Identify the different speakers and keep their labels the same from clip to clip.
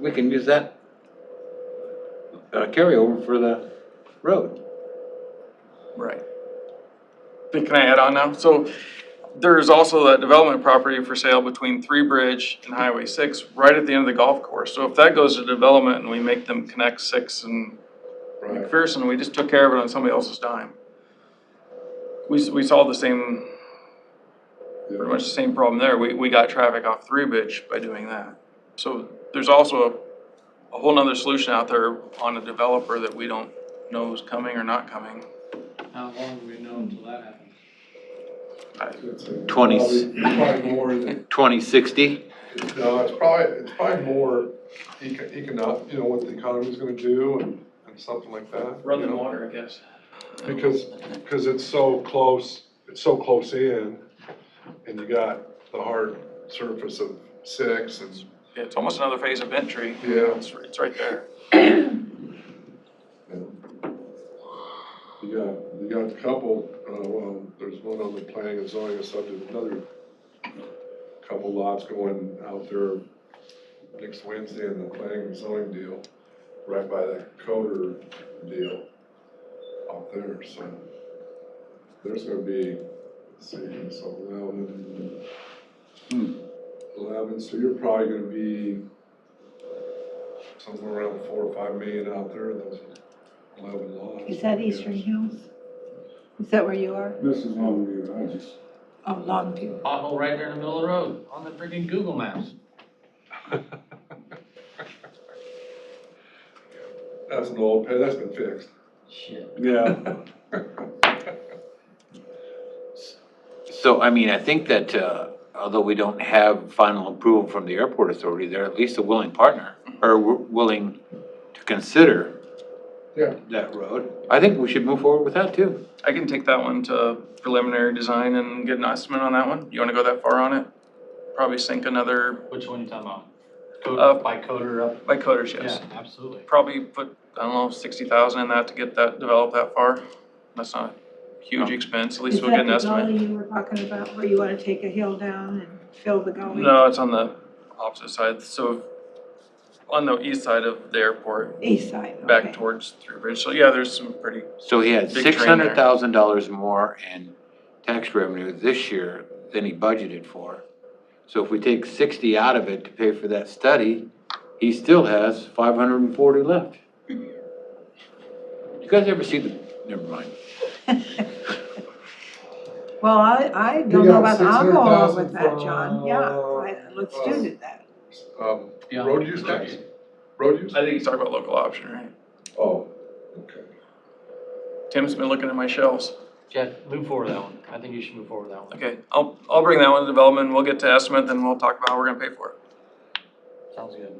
Speaker 1: we can use that uh, carryover for the road.
Speaker 2: Right. Can I add on now? So there's also that development property for sale between Three Bridge and Highway six, right at the end of the golf course. So if that goes to development and we make them connect six and McPherson, we just took care of it on somebody else's dime. We, s- we solved the same, pretty much the same problem there. We, we got traffic off Three Bridge by doing that. So there's also a, a whole nother solution out there on a developer that we don't know is coming or not coming.
Speaker 3: How long do we know until that happens?
Speaker 1: Twenty-
Speaker 4: Probably- Probably more than,
Speaker 1: Twenty sixty,
Speaker 4: no, it's probably, it's probably more eco- econo, you know, what the economy's gonna do and, and something like that. you know?
Speaker 2: water, I guess.
Speaker 4: Because, because it's so close, it's so close in, and you got the hard surface of six and,
Speaker 2: Yeah, It's almost another phase of entry.
Speaker 4: yeah,
Speaker 2: It's, it's right there.
Speaker 4: you got, you got a couple, uh, well, there's one on the planning and zoning and subject, another couple lots going out there next Wednesday in the planning and zoning deal, right by the coder deal out there, so. There's gonna be, let's see, so eleven, eleven, so you're probably gonna be somewhere around four or five million out there, in those eleven lots.
Speaker 5: Is that Eastern Hills? Is that where you are?
Speaker 6: This is Longview, I just,
Speaker 5: Oh, Longview.
Speaker 3: Pothole right there in the middle of the road, on the freaking Google Maps.
Speaker 4: That's an old, pay- that's been fixed.
Speaker 3: Shit.
Speaker 6: yeah,
Speaker 1: so I mean, I think that, uh, although we don't have final approval from the airport authority, they're at least a willing partner, or w- willing to consider
Speaker 4: Yeah.
Speaker 1: that road. I think we should move forward with that too.
Speaker 2: I can take that one to preliminary design and get an estimate on that one. You wanna go that far on it? Probably sink another,
Speaker 3: Which one you talking about?
Speaker 2: Uh,
Speaker 3: Code, by coder up?
Speaker 2: by coders,
Speaker 3: Yeah,
Speaker 2: yes.
Speaker 3: absolutely.
Speaker 2: Probably put, I don't know, sixty thousand in that to get that, develop that far. That's not a huge expense, at least we'll get an
Speaker 5: Is that
Speaker 2: estimate.
Speaker 5: the gully you were talking about, where you wanna take a hill down and fill the gully?
Speaker 2: No, it's on the opposite side, so on the east side of the airport,
Speaker 5: East side, okay.
Speaker 2: back towards Three Bridge. So yeah, there's some pretty,
Speaker 1: So he had
Speaker 2: Big
Speaker 1: six
Speaker 2: train there.
Speaker 1: hundred thousand dollars more in tax revenue this year than he budgeted for. So if we take sixty out of it to pay for that study, he still has five hundred and forty left. You guys ever see the, never mind.
Speaker 5: Well, I, I don't
Speaker 4: You
Speaker 5: know
Speaker 4: got
Speaker 5: about, I'll go along
Speaker 4: 600,000
Speaker 5: with that, John, yeah, I- let's
Speaker 4: from, uh,
Speaker 5: do that.
Speaker 4: Um,
Speaker 3: Yeah.
Speaker 4: road use tax? Road use?
Speaker 2: I think he's talking about local option, right?
Speaker 4: Oh, okay.
Speaker 2: Tim's been looking at my shelves.
Speaker 3: Yeah, move forward with that one. I think you should move forward with that one.
Speaker 2: Okay, I'll, I'll bring that one to development, we'll get to estimate, then we'll talk about how we're gonna pay for it.
Speaker 3: Sounds good.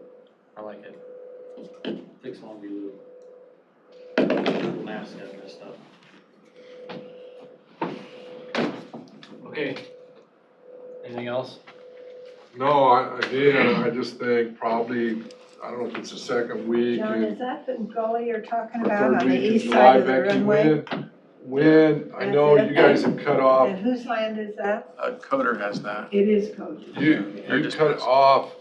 Speaker 3: I like it. Fix Longview Loop. Google Maps got messed up. Okay. Anything else?
Speaker 4: No, I, again, I just think probably, I don't know if it's the second week
Speaker 5: John,
Speaker 4: in
Speaker 5: is that the gully you're talking
Speaker 4: the
Speaker 5: about
Speaker 4: third
Speaker 5: on the
Speaker 4: week in
Speaker 5: east
Speaker 4: July,
Speaker 5: side of the
Speaker 4: Becky,
Speaker 5: runway?
Speaker 4: when, when, I know
Speaker 5: That's it.
Speaker 4: you guys have cut
Speaker 5: And
Speaker 4: off,
Speaker 5: whose land is that?
Speaker 2: Uh, Coder has that.
Speaker 5: It is Cody.
Speaker 4: you,
Speaker 2: They're
Speaker 4: you
Speaker 2: just-
Speaker 4: cut off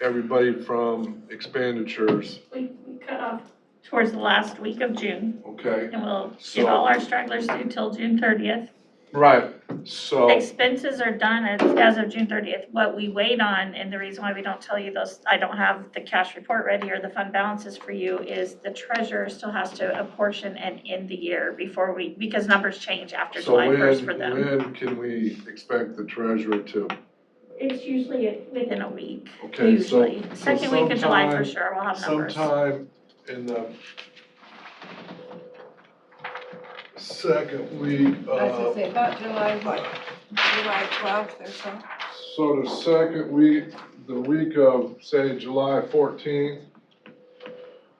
Speaker 4: everybody from expenditures,
Speaker 7: We we cut off towards the last week of June,
Speaker 4: okay?
Speaker 7: and we'll
Speaker 4: So-
Speaker 7: get all our stragglers due till June thirtieth.
Speaker 4: Right, so,
Speaker 7: Expenses are done as, as of June thirtieth. What we wait on, and the reason why we don't tell you those, I don't have the cash report ready or the fund balances for you, is the treasurer still has to apportion and end the year before we, because numbers change after
Speaker 4: so
Speaker 7: July
Speaker 4: when,
Speaker 7: first for them.
Speaker 4: when can we expect the treasurer to,
Speaker 7: It's usually within a week,
Speaker 4: okay, so.
Speaker 7: usually. Second week of July for
Speaker 4: sometime-
Speaker 7: sure, we'll have numbers.
Speaker 4: sometime in the second week
Speaker 5: I was gonna
Speaker 4: of,
Speaker 5: say, about July, what, July twelfth or so?
Speaker 4: so the second week, the week of, say, July fourteenth.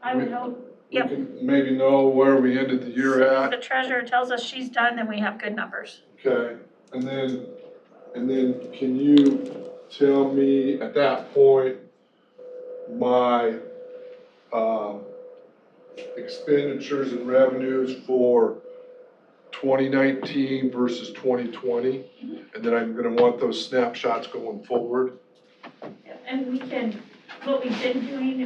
Speaker 7: I would hope
Speaker 4: we uh,
Speaker 7: Yep.
Speaker 4: can Maybe know where we ended the year
Speaker 7: As
Speaker 4: at,
Speaker 7: The treasurer tells us she's done, then we have good numbers.
Speaker 4: okay? And then, and then can you tell me at that point, my, um, expenditures and revenues for 2019 versus 2020, and then I'm gonna want those snapshots going forward.
Speaker 7: And we can, what we've been doing